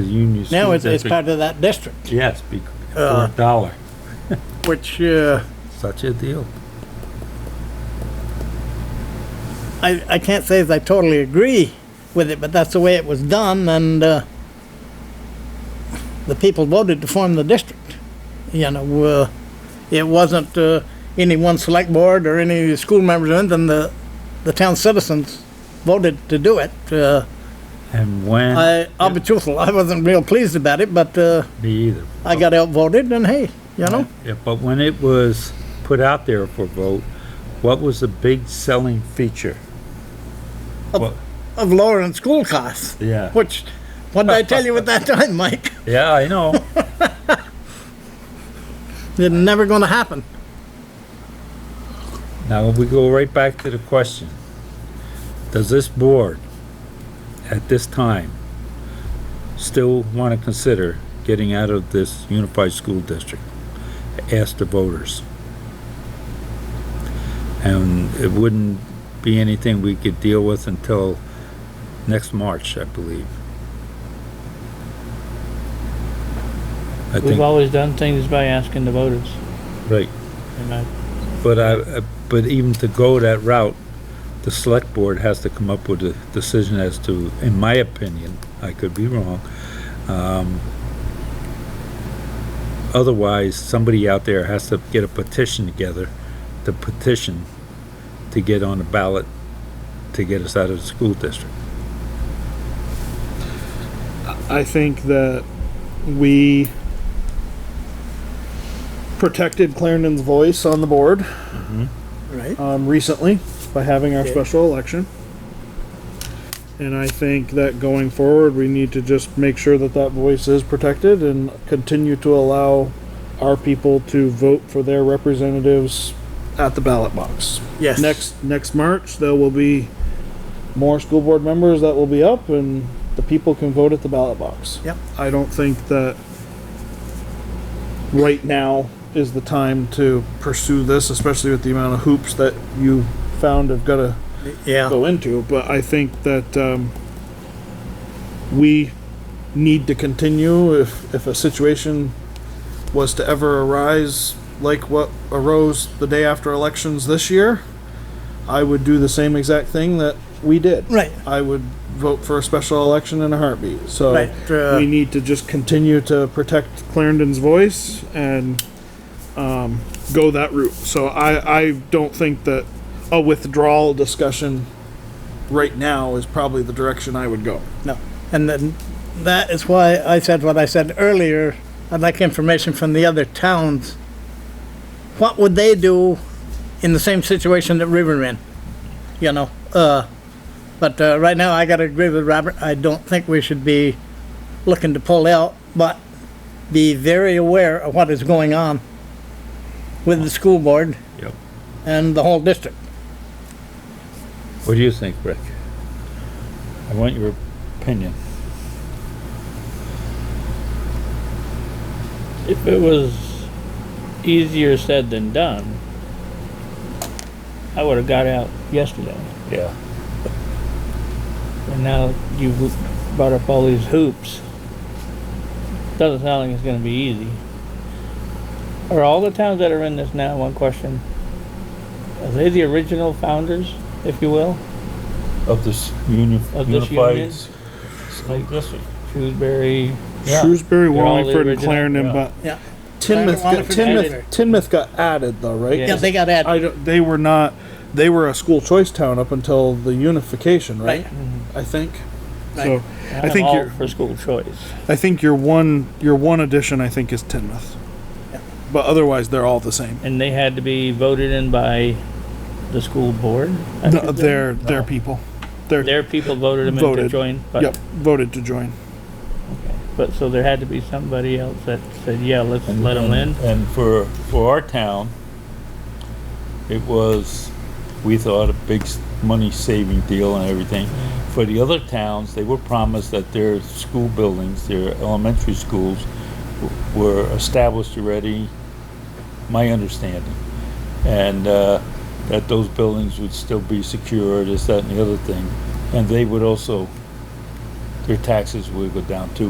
The Union School Now it's, it's District- part of that district. Yes, be, Uh, for a dollar, Which, uh, such a deal. I, I can't say that I totally agree with it, but that's the way it was done and, uh, the people voted to form the district. You know, uh, it wasn't, uh, any one select board or any school members or anything, the, the town citizens voted to do it. Uh, And when, I, I'll be truthful, I wasn't real pleased about it, but, uh, me either. I got outvoted and hey, you know? Yeah, but when it was put out there for vote, what was the big selling feature? What- of lowering school costs. Yeah. Which, what did I tell you at that time, Mike? Yeah, I know. It's never going to happen. Now, we go right back to the question. Does this board, at this time, still want to consider getting out of this unified school district? Ask the voters. And it wouldn't be anything we could deal with until next March, I believe. I We've think, always done things by asking the voters. right. And I, But I, I- but even to go that route, the select board has to come up with a decision as to, in my opinion, I could be wrong. um, Otherwise, somebody out there has to get a petition together, to petition to get on the ballot, to get us out of the school district. I think that we protected Clarendon's voice on the board Right. um, recently by having our Okay. special election. And I think that going forward, we need to just make sure that that voice is protected and continue to allow our people to vote for their representatives at the ballot box. Yes. Next, next March, there will be more school board members that will be up and the people can vote at the ballot box. Yep. I don't think that right now is the time to pursue this, especially with the amount of hoops that you found have got to Yeah. go into, but I think that um, we need to continue if, if a situation was to ever arise like what arose the day after elections this year, I would do the same exact thing that we did. Right. I would vote for a special election in a heartbeat. So Right. uh, we need to just continue to protect Clarendon's voice and um, go that route. So I, I don't think that a withdrawal discussion right now is probably the direction I would go. no. And then that is why I said what I said earlier. I'd like information from the other towns. What would they do in the same situation that River in? You know, uh, but uh, right now I got to agree with Robert. I don't think we should be looking to pull out, but be very aware of what is going on with the school board Yep. and the whole district. What do you think, Rick? I want your opinion. if it was easier said than done, I would have got out yesterday. Yeah. And now you brought up all these hoops. Doesn't sound like it's going to be easy. Are all the towns that are in this now, one question, are they the original founders, if you will? Of this uni- Of this unified union? s- school district. Shrewsbury, Yeah. Shrewsbury, They're all the Wallingford, and original, Clarendon, yeah. but Yeah. Tinmouth got, Wallingford, Tinmouth, Clarendon. Tinmouth got added though, right? Yeah, Yeah. they got added. I don't, they were not, they were a school choice town up until the unification, right? I think. So I I'm think all you're. for school choice. I think your one your one addition I think is Tinmouth. But otherwise they're all the same. And they had to be voted in by the school board? I No, presume? they're they're people. They're, Their people voted them in to Voted. join, but, yep, voted to join. but, so there had to be somebody else that said, yeah, let's let them in. And for, for our town, it was, we thought, a big s- money-saving deal and everything. For the other towns, they were promised that their school buildings, their elementary schools, w- were established already, my understanding. And, uh, that those buildings would still be secure, this, that, and the other thing. And they would also, their taxes would go down too,